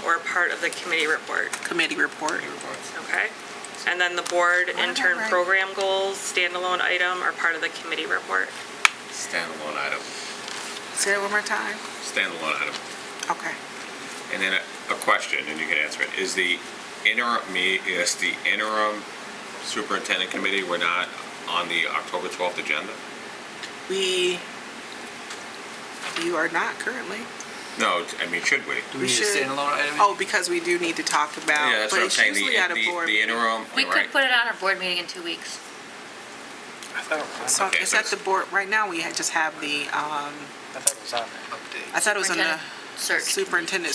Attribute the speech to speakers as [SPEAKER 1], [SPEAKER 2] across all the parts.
[SPEAKER 1] were part of the committee report,
[SPEAKER 2] committee report.
[SPEAKER 1] okay? And then the board
[SPEAKER 3] that
[SPEAKER 1] intern
[SPEAKER 3] right?
[SPEAKER 1] program goals, standalone item, are part of the committee report.
[SPEAKER 4] Standalone item,
[SPEAKER 3] Say it one more time.
[SPEAKER 4] standalone item.
[SPEAKER 3] Okay.
[SPEAKER 4] And then a, a question, and you can answer it, is the interim, me, is the interim superintendent committee, we're not on the October 12th agenda?
[SPEAKER 3] We, you are not currently.
[SPEAKER 4] No, I mean, should we?
[SPEAKER 5] Do we need a
[SPEAKER 3] should-
[SPEAKER 5] standalone item?
[SPEAKER 3] Oh, because we do need to talk
[SPEAKER 4] Yeah,
[SPEAKER 3] about, but
[SPEAKER 4] that's what I'm
[SPEAKER 3] it's
[SPEAKER 4] saying, the,
[SPEAKER 3] usually at a
[SPEAKER 4] the
[SPEAKER 3] board.
[SPEAKER 4] the interim,
[SPEAKER 6] We
[SPEAKER 4] right?
[SPEAKER 6] could put it on our board meeting in two weeks.
[SPEAKER 5] I thought it was
[SPEAKER 3] So
[SPEAKER 5] on,
[SPEAKER 4] Okay,
[SPEAKER 3] it's
[SPEAKER 4] so
[SPEAKER 3] at the
[SPEAKER 4] it's-
[SPEAKER 3] board, right now we had- just have the, um,
[SPEAKER 5] I thought it was on there.
[SPEAKER 3] I thought it was on the
[SPEAKER 6] Superintendent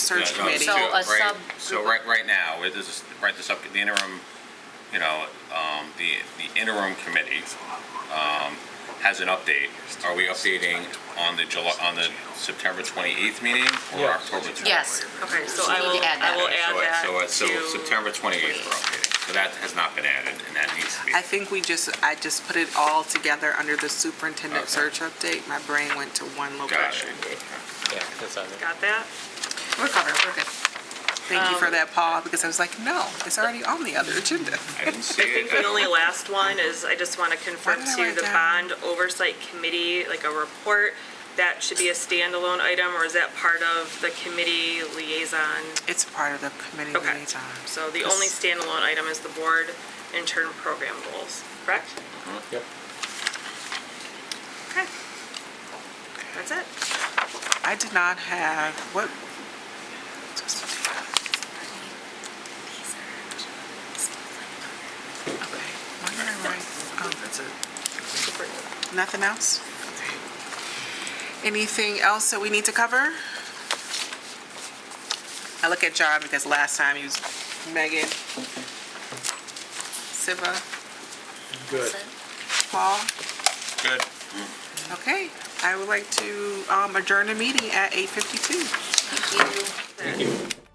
[SPEAKER 3] superintendent
[SPEAKER 6] Search.
[SPEAKER 4] Yeah,
[SPEAKER 3] search
[SPEAKER 4] no, it's
[SPEAKER 3] committee.
[SPEAKER 6] So
[SPEAKER 4] two,
[SPEAKER 6] a
[SPEAKER 4] right?
[SPEAKER 6] sub-
[SPEAKER 4] So right, right now, it is, right, the sub, the interim, you know, um, the, the interim committee, um, has an update. Are we updating on the July, on the September 28th meeting or
[SPEAKER 5] Yeah.
[SPEAKER 4] October 12th?
[SPEAKER 6] Yes.
[SPEAKER 1] Okay, so
[SPEAKER 6] So
[SPEAKER 1] I
[SPEAKER 6] we
[SPEAKER 1] will,
[SPEAKER 6] need to
[SPEAKER 1] I
[SPEAKER 6] add that.
[SPEAKER 1] will
[SPEAKER 4] Okay, so
[SPEAKER 1] add
[SPEAKER 4] it-
[SPEAKER 1] that
[SPEAKER 4] So, it's-
[SPEAKER 1] to-
[SPEAKER 4] so September 28th we're updating. So that has not been added and that needs to be.
[SPEAKER 3] I think we just, I just put it all together under the superintendent
[SPEAKER 4] Okay.
[SPEAKER 3] search update. My brain went to one
[SPEAKER 4] Got
[SPEAKER 3] location.
[SPEAKER 4] it.
[SPEAKER 5] Yeah, that's on there.
[SPEAKER 1] Got that?
[SPEAKER 6] We're covered, we're good. Um,
[SPEAKER 3] Thank you for that, Paul, because I was like, no, it's already on the other agenda.
[SPEAKER 4] I didn't see
[SPEAKER 1] I think
[SPEAKER 4] it.
[SPEAKER 1] the only last one is, I just want to confirm
[SPEAKER 3] Why did I
[SPEAKER 1] to
[SPEAKER 3] write
[SPEAKER 1] the
[SPEAKER 3] that?
[SPEAKER 1] bond oversight committee, like a report, that should be a standalone item, or is that part of the committee liaison?
[SPEAKER 3] It's part of the committee
[SPEAKER 1] Okay.
[SPEAKER 3] liaison.
[SPEAKER 1] So the only standalone item is the board intern program goals, correct?
[SPEAKER 5] Yep.
[SPEAKER 1] Okay. That's it.
[SPEAKER 3] I did not have, what? Okay. Why did I write- oh,
[SPEAKER 5] That's it.
[SPEAKER 3] Nothing else? Anything else that we need to cover? I look at John because last time he was Megan, Siva,
[SPEAKER 5] Good.
[SPEAKER 3] Paul.
[SPEAKER 4] Good.
[SPEAKER 3] Okay, I would like to um, adjourn the meeting at 8:52.
[SPEAKER 6] Thank you.